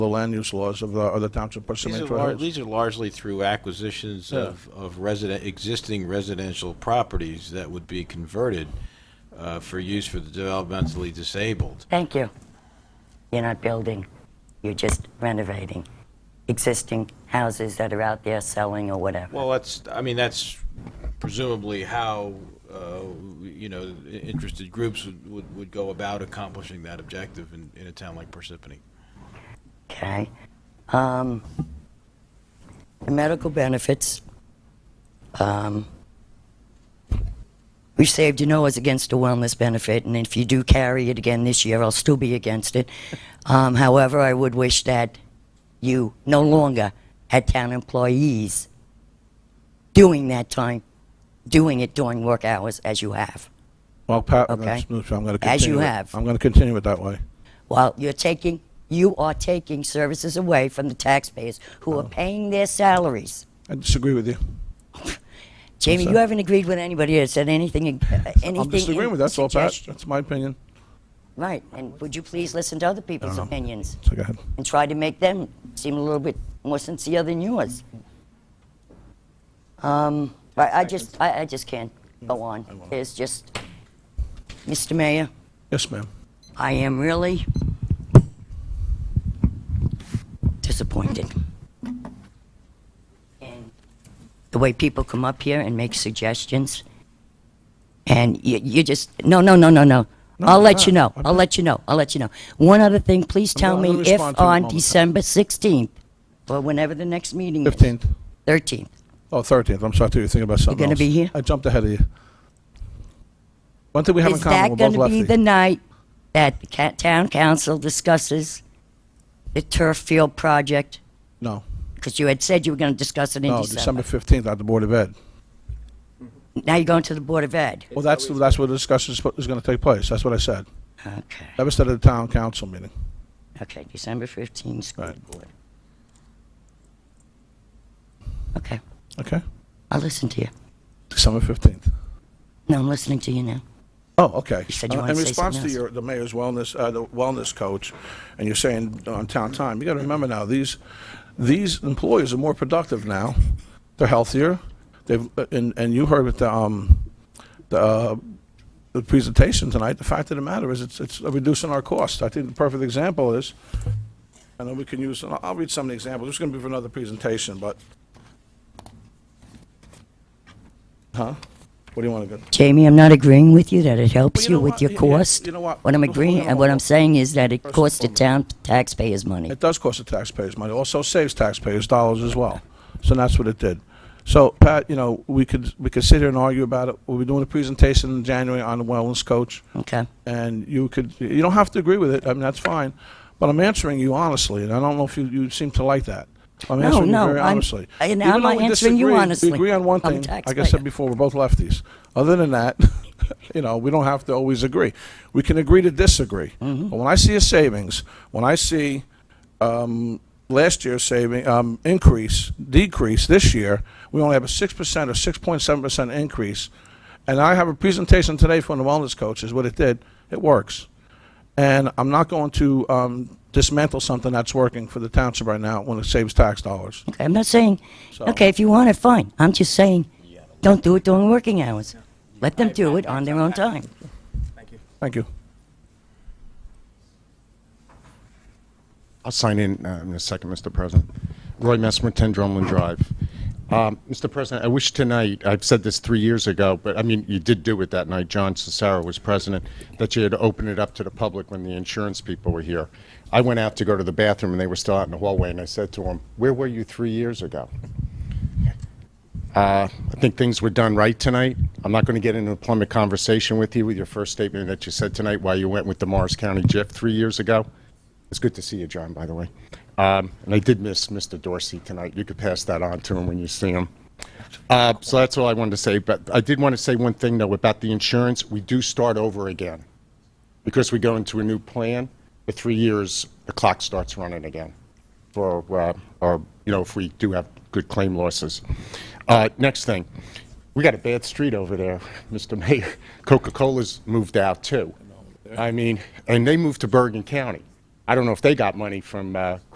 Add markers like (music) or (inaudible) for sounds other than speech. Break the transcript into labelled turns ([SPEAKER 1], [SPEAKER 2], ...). [SPEAKER 1] the land use laws of the, of the township of
[SPEAKER 2] These
[SPEAKER 1] Parsippany
[SPEAKER 2] are,
[SPEAKER 1] Troy
[SPEAKER 2] lar-
[SPEAKER 1] Hills.
[SPEAKER 2] these are largely through acquisitions of, of resident, existing residential properties that would be converted uh, for use for the developmentally disabled.
[SPEAKER 3] Thank you. You're not building, you're just renovating existing houses that are out there selling or whatever.
[SPEAKER 2] Well, that's, I mean, that's presumably how, uh, you know, i- interested groups would, would, would go about accomplishing that objective in, in a town like Parsippany.
[SPEAKER 3] Okay. Um, the medical benefits. Um, we saved, you know, is against the wellness benefit, and if you do carry it again this year, I'll still be against it. Um, however, I would wish that you no longer had town employees doing that time, doing it during work hours as you have.
[SPEAKER 1] Well, Pat,
[SPEAKER 3] Okay.
[SPEAKER 1] that's- I'm going to continue.
[SPEAKER 3] As you
[SPEAKER 1] it-
[SPEAKER 3] have.
[SPEAKER 1] I'm going to continue it that way.
[SPEAKER 3] Well, you're taking, you are taking services away from the taxpayers who are paying their salaries.
[SPEAKER 1] I disagree with you.
[SPEAKER 3] Jamie,
[SPEAKER 1] sir.
[SPEAKER 3] you haven't agreed with anybody that said anything. uh, anything
[SPEAKER 1] (laughs) I'm disagreeing
[SPEAKER 3] in
[SPEAKER 1] with, that's all, Pat.
[SPEAKER 3] suggestion.
[SPEAKER 1] That's my opinion.
[SPEAKER 3] Right, and would you please listen to other people's opinions
[SPEAKER 1] So go ahead.
[SPEAKER 3] and try to make them seem a little bit more sincere than yours? Um, I, I just, I, I just can't
[SPEAKER 1] Mm,
[SPEAKER 3] go on. It's just, Mr. Mayor,
[SPEAKER 1] Yes, ma'am.
[SPEAKER 3] I am really disappointed in the way people come up here and make suggestions. And you, you just, no, no, no, no, no.
[SPEAKER 1] No,
[SPEAKER 3] I'll
[SPEAKER 1] I'm
[SPEAKER 3] let you know.
[SPEAKER 1] not. I'm
[SPEAKER 3] I'll
[SPEAKER 1] not.
[SPEAKER 3] let you know. I'll let you know. One other thing, please tell
[SPEAKER 1] not gonna
[SPEAKER 3] me if
[SPEAKER 1] respond to you
[SPEAKER 3] on
[SPEAKER 1] all the time.
[SPEAKER 3] December 16th, or whenever the next meeting is.
[SPEAKER 1] 15th.
[SPEAKER 3] 13th.
[SPEAKER 1] Oh, 13th, I'm sorry, I thought you were thinking about something
[SPEAKER 3] gonna
[SPEAKER 1] else.
[SPEAKER 3] be here?
[SPEAKER 1] I jumped ahead of you. One thing we have in
[SPEAKER 3] Is that
[SPEAKER 1] common, we're
[SPEAKER 3] going
[SPEAKER 1] both
[SPEAKER 3] to be
[SPEAKER 1] lefty.
[SPEAKER 3] the night that the ca- town council discusses the turf field project?
[SPEAKER 1] No,
[SPEAKER 3] Because you had said you were going to discuss it in
[SPEAKER 1] no,
[SPEAKER 3] December.
[SPEAKER 1] December 15th at the Board of Ed.
[SPEAKER 3] Now you're going to the Board of Ed.
[SPEAKER 1] Well, that's, that's where the discussion is spo- is going to take place, that's what I said.
[SPEAKER 3] Okay,
[SPEAKER 1] That was at the town council meeting.
[SPEAKER 3] okay, December 15th, school
[SPEAKER 1] Right.
[SPEAKER 3] board. Okay,
[SPEAKER 1] Okay,
[SPEAKER 3] I'll listen to you.
[SPEAKER 1] December 15th.
[SPEAKER 3] No, I'm listening to you now.
[SPEAKER 1] Oh, okay.
[SPEAKER 3] You said you
[SPEAKER 1] Uh,
[SPEAKER 3] wanted to say
[SPEAKER 1] In response
[SPEAKER 3] something
[SPEAKER 1] to
[SPEAKER 3] else.
[SPEAKER 1] your, the mayor's wellness, uh, the wellness coach, and you're saying on town time, you got to remember now, these, these employees are more productive now. They're healthier. They've, uh, and, and you heard with the, um, the, uh, the presentation tonight, the fact of the matter is, it's, it's reducing our cost. I think the perfect example is, I know we can use, and I'll- I'll read some of the examples. This is going to be for another presentation, but. Huh? What do you want to go?
[SPEAKER 3] Jamie, I'm not agreeing with you that it
[SPEAKER 1] Well,
[SPEAKER 3] helps
[SPEAKER 1] you
[SPEAKER 3] you
[SPEAKER 1] know
[SPEAKER 3] with
[SPEAKER 1] what?
[SPEAKER 3] your
[SPEAKER 1] Y- yeah,
[SPEAKER 3] cost.
[SPEAKER 1] you know what?
[SPEAKER 3] What I'm
[SPEAKER 1] Before we
[SPEAKER 3] agreeing,
[SPEAKER 1] go
[SPEAKER 3] and what
[SPEAKER 1] on.
[SPEAKER 3] I'm saying is that it
[SPEAKER 1] First and
[SPEAKER 3] costs the
[SPEAKER 1] foremost.
[SPEAKER 3] town taxpayers money.
[SPEAKER 1] It does cost the taxpayers money, also saves taxpayers dollars as well. So that's what it did. So, Pat, you know, we could, we could sit here and argue about it. We'll be doing a presentation in January on the wellness coach,
[SPEAKER 3] Okay,
[SPEAKER 1] and you could, you don't have to agree with it, I mean, that's fine, but I'm answering you honestly, and I don't know if you, you seem to like that. I'm
[SPEAKER 3] No,
[SPEAKER 1] answering you
[SPEAKER 3] no,
[SPEAKER 1] very
[SPEAKER 3] I'm-
[SPEAKER 1] honestly.
[SPEAKER 3] and
[SPEAKER 1] Even
[SPEAKER 3] I'm
[SPEAKER 1] though we
[SPEAKER 3] answering you
[SPEAKER 1] disagree,
[SPEAKER 3] honestly.
[SPEAKER 1] We agree on one
[SPEAKER 3] I'm
[SPEAKER 1] thing,
[SPEAKER 3] a
[SPEAKER 1] like I
[SPEAKER 3] taxpayer.
[SPEAKER 1] said before, we're both lefties. Other than that, (laughs) you know, we don't have to always agree. We can agree to disagree.
[SPEAKER 3] Mm-hmm.
[SPEAKER 1] But when I see a savings, when I see last year's saving, um, increase, decrease this year, we only have a six percent or six point seven percent increase. And I have a presentation today from the wellness coach, is what it did. It works. And I'm not going to, um, dismantle something that's working for the township right now when it saves tax dollars.
[SPEAKER 3] okay, I'm not saying,
[SPEAKER 1] So-
[SPEAKER 3] okay, if you want it, fine. I'm just saying, don't do it during working hours. Let them do it on their own time.
[SPEAKER 1] Thank you.
[SPEAKER 4] I'll sign in uh, in a second, Mr. President. Roy Messmer, 10 Drumlin Drive. Um, Mr. President, I wish tonight, I've said this three years ago, but I mean, you did do it that night, John Cesaro was president, that you had opened it up to the public when the insurance people were here. I went out to go to the bathroom, and they were still out in the hallway, and I said to them, "Where were you three years ago?" Uh, I think things were done right tonight. I'm not going to get into a plumbing conversation with you with your first statement that you said tonight why you went with the Morris County JIF three years ago. It's good to see you, John, by the way. Um, and I did miss Mr. Dorsey tonight. You could pass that on to him when you see him. Uh, so that's all I wanted to say. But I did want to say one thing, though, about the insurance. We do start over again because we go into a new plan. For three years, the clock starts running again for, uh, or, you know, if we do have good claim losses. Uh, next thing, we got a bad street over there, (laughs) Mr. Mayor. Coca-Cola's moved out too. I mean, and they moved to Bergen County. I don't know if they got money from, uh,